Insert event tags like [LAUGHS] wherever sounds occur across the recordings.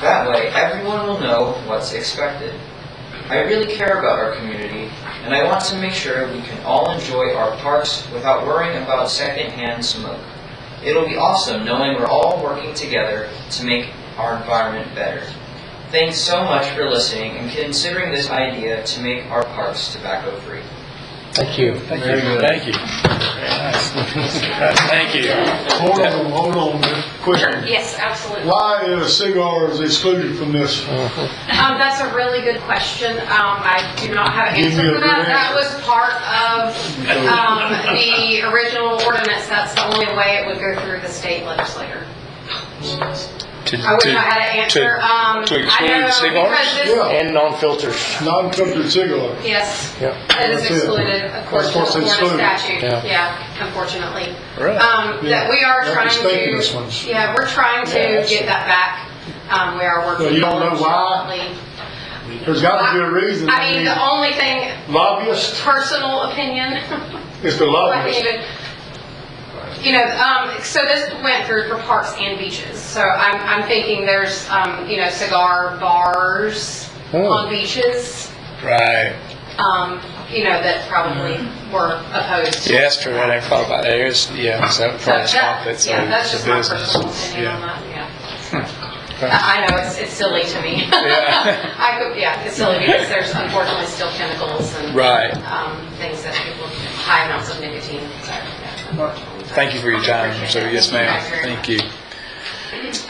That way, everyone will know what's expected. I really care about our community, and I want to make sure we can all enjoy our parks without worrying about secondhand smoke. It'll be awesome knowing we're all working together to make our environment better. Thanks so much for listening and considering this idea to make our parks tobacco-free. Thank you. Thank Very you. good. Thank you. Very nice. Thank you. Hold on, hold on, quick. Yes, absolutely. Why is cigars excluded from this? Um, that's a really good question. Um, I do not have an Give me answer a for that. good That answer. was part of, um, the original ordinance. That's the only way it would go through the state legislature. To- I wish I to- had an answer. to- Um, to I exclude know cigars? because this- Yeah. And non-filters. Non-filtered cigar. Yes, Yeah. that is That's it. excluded, of course, That's what's from the Florida excluded. statute. Yeah. Yeah, unfortunately. Really? Um, Yeah. that we are That was trying to. thinking this one's- Yeah, we're trying Yeah, to that's get it. that back. Um, we are working. Well, you don't know why? diligently. There's got to be a reason. I mean, the only thing, Lobbyists, personal opinion, [LAUGHS] it's the I lobbyists. even, you know, um, so this went through for parks and beaches. So I'm, I'm thinking there's, um, you know, cigar bars Oh. on beaches, Right. um, you know, that probably were opposed. Yeah, that's true. I never thought about that. There's, yeah, so that So probably that, stopped it, so yeah, that's it's just a my business. personal opinion on Yeah. Hmm. that, yeah. I I know, it's, it's silly to me. Yeah. [LAUGHS] I could, yeah, it's silly because there's unfortunately still chemicals and. Right. um, things that people, high amounts of nicotine. Thank you for your time. So, yes, ma'am. Thank you.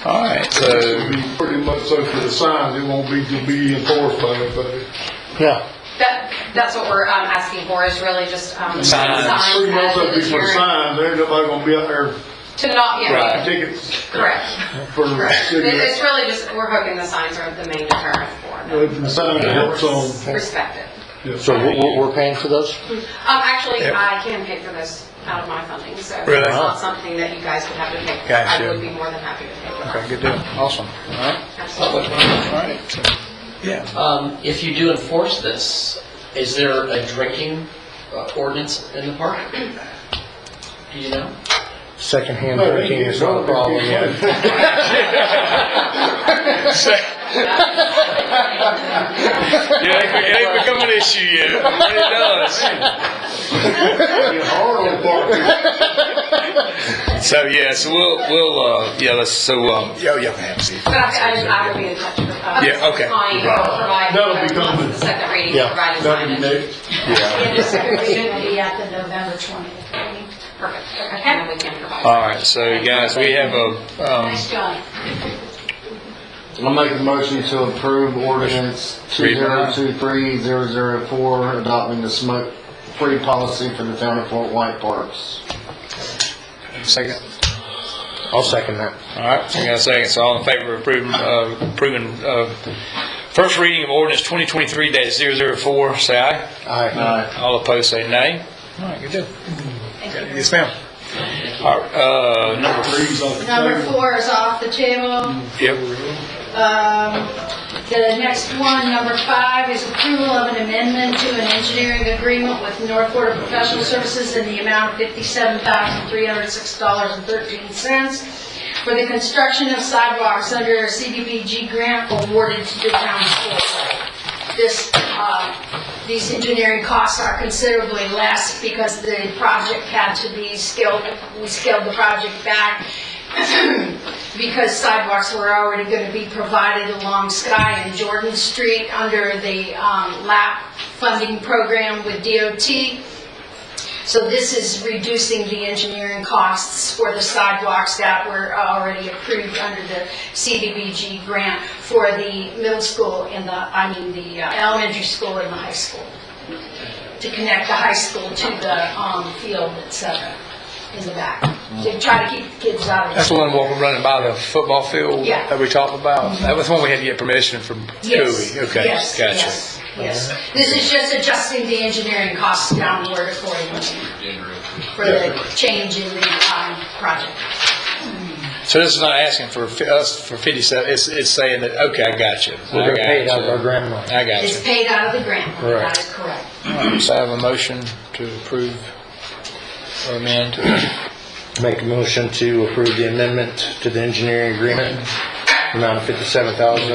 All right, so, It'll be pretty much so for the signs, it won't be to be enforced by anybody. yeah. That, that's what we're um, asking for is really just um, Signs. signs Pretty much as that'd an be for the adherent signs, there ain't nobody gonna be out there to Right. not, yeah, tickets correct. for It- It's cigarettes. really just, we're hoping the signs are the main deterrent for If the sign helps them. on. Respect it. So we're, we're paying for those? Um, actually, Yeah. I can pay for those out of my funding, so it's Really? not something that you guys would have to pay. for. Gotcha. I would be more than happy to pay for Okay, good deal. Awesome. All right. that. Absolutely. All right. So, Yeah. Um, if you do enforce this, is there a drinking uh, ordinance in the park? Do you know? Secondhand drinking is not a problem [LAUGHS] [LAUGHS] yet. [LAUGHS] it ain't become an issue yet, but it does. So, yeah, so we'll, we'll, uh, yeah, let's, so, um. Yeah, yeah, ma'am, see. But I, I I will be in touch with, uh, Yeah, okay. Connie, who will provide. That'll be coming. The second reading, Yeah. provided That'd be signage. neat. Yeah. be at the November 20th meeting. Perfect, okay, and then we can provide. All right, so guys, we have a, um, Nice job. I'll make a motion to approve ordinance two Read it zero out. two three zero zero four, adopting the smoke-free policy for the town of Fort White Parks. second. I'll second that. All right, so we got a second. So all in favor of approving, uh, approving, uh, first reading of ordinance twenty twenty-three dash zero zero four, say aye. Aye. All opposed, say nay. All right, good deal. Yes, ma'am. All right, uh, number three. Number four is off the table. Yep, Um, The next one, number five, is approval of an amendment to an engineering agreement with North Florida Professional Services in the amount of $57,306.13 for the construction of sidewalks under a CDBG grant awarded to the town of Fort Wayne. This, uh, these engineering costs are considerably less because the project had to be scaled, we scaled the project back because sidewalks were already going to be provided along Sky and Jordan Street under the um, LAP funding program with DOT. So this is reducing the engineering costs for the sidewalks that were already approved under the CDBG grant for the middle school and the, I mean, the uh, elementary school and the high school, to connect the high school to the um, field, et cetera, in the back, to try to keep the kids out of the that's the one where we're running by the football field Yeah. that we talked about. That was the one we had to get permission from Yes, Cooley. Okay, yes, gotcha. yes, Yes, this is just adjusting the engineering costs downward accordingly for the change in the um, project. So this is not asking for fi- us for fifty-seven, it's, it's saying that, okay, I got you. Well, they're paid out of our grant money. I got It's you. paid out of the grant, money, that Correct. is correct. All right, So I have a motion to approve or amend. Make a motion to approve the amendment to the engineering agreement amount of fifty-seven thousand